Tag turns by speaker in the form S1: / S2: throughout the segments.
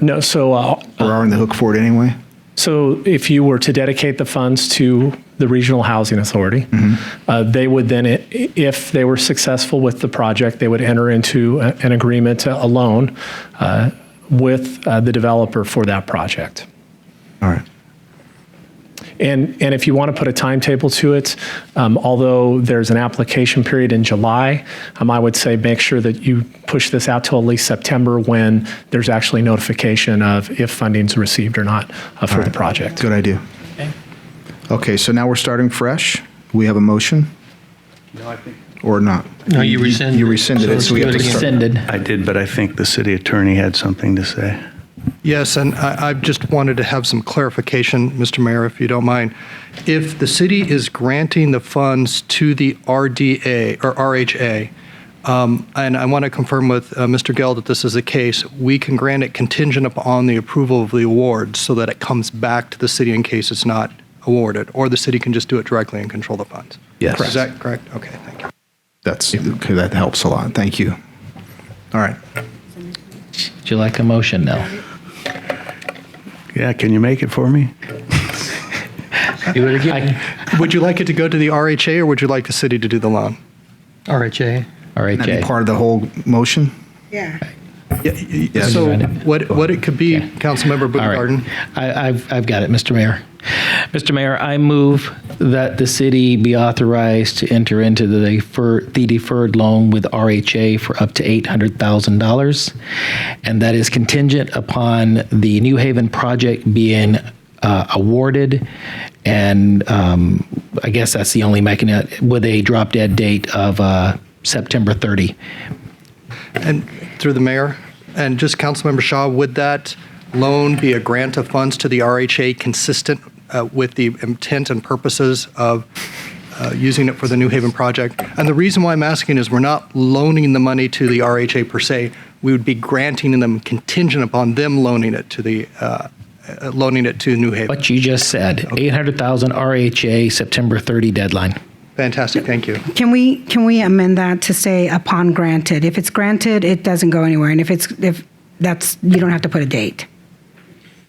S1: No, so, uh,
S2: We're on the hook for it anyway.
S1: so if you were to dedicate the funds to the Regional Housing Authority, uh, they would then, i- if they were successful with the project, they would enter into a- an agreement to a loan uh, with uh, the developer for that project.
S2: All right.
S1: And, and if you want to put a timetable to it, um, although there's an application period in July, um, I would say make sure that you push this out till at least September when there's actually notification of if funding's received or not uh, for the project.
S2: Good idea. Okay, so now we're starting fresh. We have a motion? Or not?
S3: No, you rescinded.
S2: You rescinded it, so we have to start.
S4: Rescinded.
S5: I did, but I think the city attorney had something to say.
S6: Yes, and I I just wanted to have some clarification, Mr. Mayor, if you don't mind. If the city is granting the funds to the RDA or RHA, um, and I want to confirm with uh, Mr. Gell that this is the case, we can grant it contingent upon the approval of the award so that it comes back to the city in case it's not awarded, or the city can just do it directly and control the funds.
S2: Yes.
S6: Is that correct? Okay, thank you.
S2: That's, okay, that helps a lot. Thank you. All right.
S4: Would you like a motion now?
S5: Yeah, can you make it for me?
S3: Do it again.
S6: Would you like it to go to the RHA, or would you like the city to do the loan?
S3: RHA.
S4: All
S2: Can
S4: right,
S2: that
S4: Jay.
S2: be part of the whole motion?
S7: Yeah.
S2: Yes.
S6: So
S4: Right.
S6: what, what it could be, Councilmember
S4: All right.
S6: Buchengarden?
S4: I, I've, I've got it, Mr. Mayor. Mr. Mayor, I move that the city be authorized to enter into the deferred, the deferred loan with RHA for up to $800,000. And that is contingent upon the New Haven project being uh, awarded. And um, I guess that's the only mechanism with a drop dead date of uh, September 30.
S6: And through the mayor, and just Councilmember Shaw, would that loan be a grant of funds to the RHA consistent uh, with the intent and purposes of uh, using it for the New Haven project? And the reason why I'm asking is we're not loaning the money to the RHA per se. We would be granting them contingent upon them loaning it to the, uh, uh, loaning it to New Haven.
S4: What you just said, 800,000 RHA, September 30 deadline.
S6: Fantastic, thank you.
S7: Can we, can we amend that to say upon granted? If it's granted, it doesn't go anywhere, and if it's, if, that's, you don't have to put a date.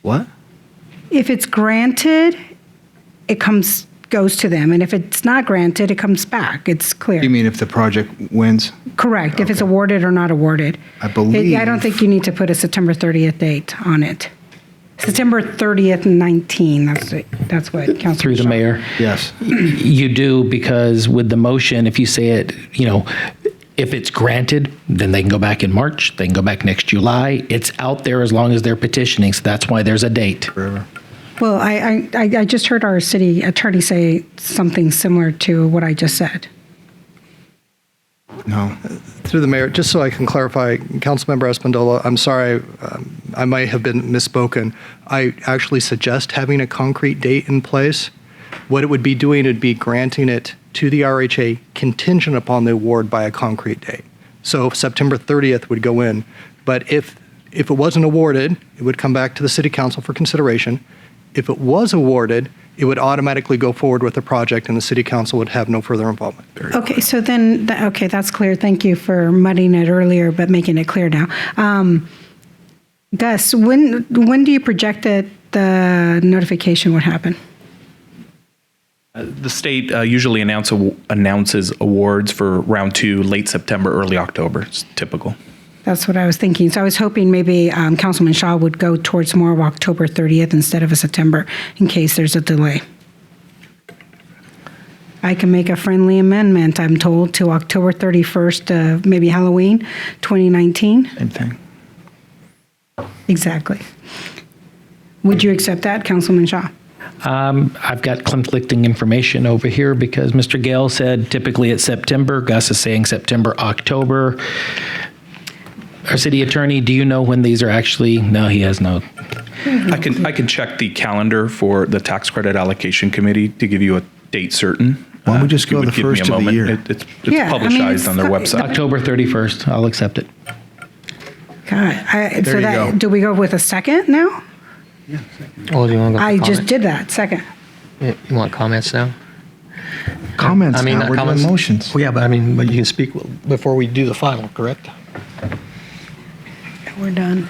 S2: What?
S7: If it's granted, it comes, goes to them, and if it's not granted, it comes back. It's
S2: You
S7: clear.
S2: mean if the project wins?
S7: Correct, if it's awarded or not awarded.
S2: I
S7: It- I
S2: believe-
S7: don't think you need to put a September 30th date on it. September 30th, 19, that's, it- that's what Councilman
S4: Through the
S7: Shaw-
S4: mayor.
S2: Yes.
S4: You do because with the motion, if you say it, you know, if it's granted, then they can go back in March, they can go back next July. It's out there as long as they're petitioning, so that's why there's a date.
S7: Well, I, I- I, I just heard our city attorney say something similar to what I just said.
S2: No.
S6: Through the mayor, just so I can clarify, Councilmember Espandola, I'm sorry, um, I might have been misspoken. I actually suggest having a concrete date in place. What it would be doing would be granting it to the RHA contingent upon the award by a concrete date. So September 30th would go in, but if, if it wasn't awarded, it would come back to the city council for consideration. If it was awarded, it would automatically go forward with the project and the city council would have no further involvement.
S7: Okay, so then, tha- okay, that's clear. Thank you for muddying it earlier, but making it clear now. Um, Gus, when, when do you project that the notification would happen?
S8: The state uh, usually announce aw- announces awards for round two late September, early October. It's typical.
S7: That's what I was thinking. So I was hoping maybe um, Councilman Shaw would go towards more of October 30th instead of a September in case there's a delay. I can make a friendly amendment, I'm told, to October 31st, uh, maybe Halloween 2019.
S2: Same thing.
S7: Exactly. Would you accept that, Councilman Shaw?
S4: Um, I've got conflicting information over here because Mr. Gale said typically it's September. Gus is saying September, October. Our city attorney, do you know when these are actually? No, he has no.
S2: Mm-hmm.
S8: I can I can check the calendar for the tax credit allocation committee to give you a date certain.
S2: Why don't we
S8: Uh,
S2: just
S8: if you
S2: go
S8: would
S2: the
S8: give me
S2: first
S8: a
S2: of the
S8: moment.
S2: year?
S8: It, it's it's
S7: Yeah, I mean,
S8: publicized
S7: it's
S8: on their
S7: not-
S8: website.
S4: October 31st. I'll accept it.
S7: God, I,
S2: There
S7: so
S2: you
S7: that,
S2: go.
S7: do we go with a second now?
S3: Oh, do you want to go? for
S7: I just
S3: comment?
S7: did that, second.
S3: Yeah, You want comments now?
S2: Comments
S3: I mean,
S2: now,
S3: not
S2: we're doing
S3: comments.
S2: motions.
S3: Well, yeah, but I mean, but you can speak before we do the final, correct?
S7: We're done.